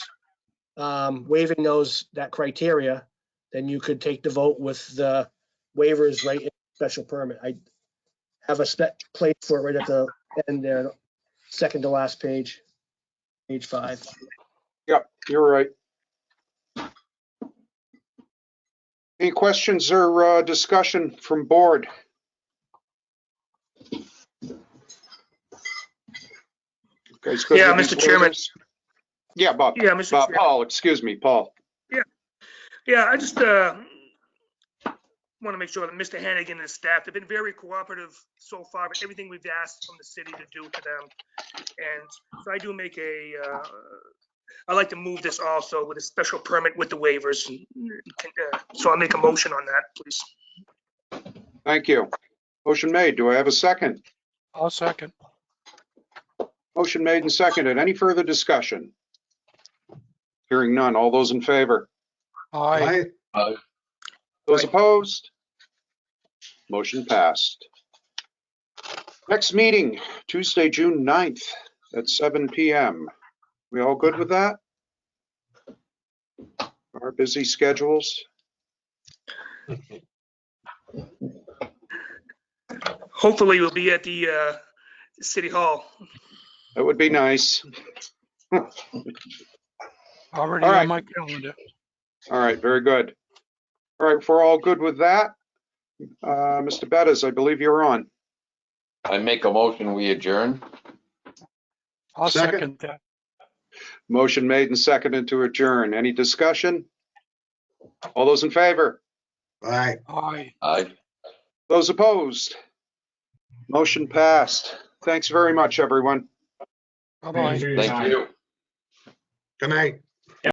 um, waiving those, that criteria, then you could take the vote with the waivers right in special permit. I have a spec plate for it right at the end there, second to last page, page five. Yep, you're right. Any questions or uh, discussion from board? Okay, it's good Yeah, with Mr. these Chairman. waivers. Yeah, Bob, Yeah, Mr. Bob, oh. Chair. Paul, excuse me, Paul. Yeah, I just uh, want to make sure that Mr. Hannigan and his staff have been very cooperative so far with everything we've asked from the city to do for them. And so I do make a, uh, I'd like to move this also with a special permit with the waivers. Uh, So I'll make a motion on that, please. Thank you. Motion made. Do I have a second? I'll second. Motion made and seconded. Any further discussion? Hearing none. All those in favor? Aye. Those Aye. opposed? Motion passed. Next meeting, Tuesday, June 9th at 7 PM. We all good with that? Our busy schedules? Hopefully we'll be at the uh, City Hall. That would be nice. Already All right. on my calendar. All right, very good. All right, if we're all good with that, uh, Mr. Bettis, I believe you're on. I make a motion, we adjourn. I'll second Second. that. Motion made and seconded to adjourn. Any discussion? All those in favor? All right. Aye. Aye. Those opposed? Motion passed. Thanks very much, everyone. Bye-bye. Thank you. Good night.